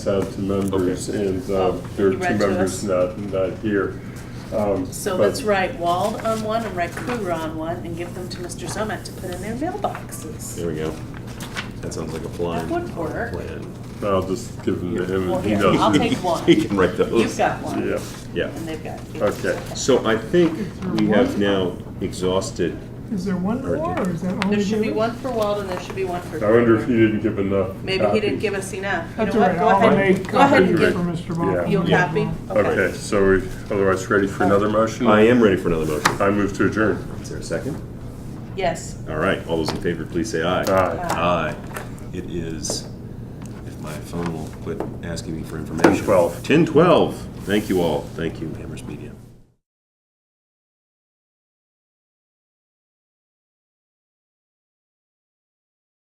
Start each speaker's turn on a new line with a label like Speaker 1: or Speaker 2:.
Speaker 1: out to members, and uh,
Speaker 2: Oh,
Speaker 1: there are
Speaker 2: you
Speaker 1: two
Speaker 2: read to us?
Speaker 1: members not, not here. Um,
Speaker 2: So
Speaker 1: but-
Speaker 2: let's write Wald on one and write Kruger on one and give them to Mr. Zomack to put in their mailboxes.
Speaker 3: There we go. That sounds like a plan.
Speaker 2: That would work.
Speaker 3: Plan.
Speaker 1: I'll just give them to him,
Speaker 2: Well,
Speaker 1: and he
Speaker 2: here,
Speaker 1: knows.
Speaker 2: I'll
Speaker 1: it.
Speaker 2: take one.
Speaker 3: He can write those.
Speaker 2: You've got one,
Speaker 1: Yeah,
Speaker 3: Yeah.
Speaker 2: and they've got.
Speaker 1: Okay.
Speaker 3: So I think we have now exhausted,
Speaker 4: Is there one
Speaker 3: Or
Speaker 4: more,
Speaker 3: did-
Speaker 4: or is that only?
Speaker 2: There should be
Speaker 4: given?
Speaker 2: one for Wald and there should be one for
Speaker 1: I wonder if
Speaker 2: Kruger.
Speaker 1: he didn't give enough.
Speaker 2: Maybe he didn't
Speaker 1: copies.
Speaker 2: give us enough. You
Speaker 4: That's
Speaker 2: know
Speaker 4: all
Speaker 2: what?
Speaker 4: right,
Speaker 2: Go
Speaker 4: I'll make
Speaker 2: ahead. Go ahead and
Speaker 4: copies
Speaker 2: give,
Speaker 4: for Mr.
Speaker 1: Yeah.
Speaker 4: Moffett.
Speaker 2: you'll
Speaker 1: Yeah.
Speaker 2: copy?
Speaker 1: Okay, so we, otherwise ready for another motion?
Speaker 3: I am ready for another motion.
Speaker 1: I move to adjourn.
Speaker 3: Is there a second?
Speaker 2: Yes.
Speaker 3: All right, all those in favor, please say aye.
Speaker 1: Aye.
Speaker 3: Aye. It is, if my phone will quit asking me for information.
Speaker 1: 10:12.
Speaker 3: Ten twelve. Thank you all. Thank you, Amherst Media.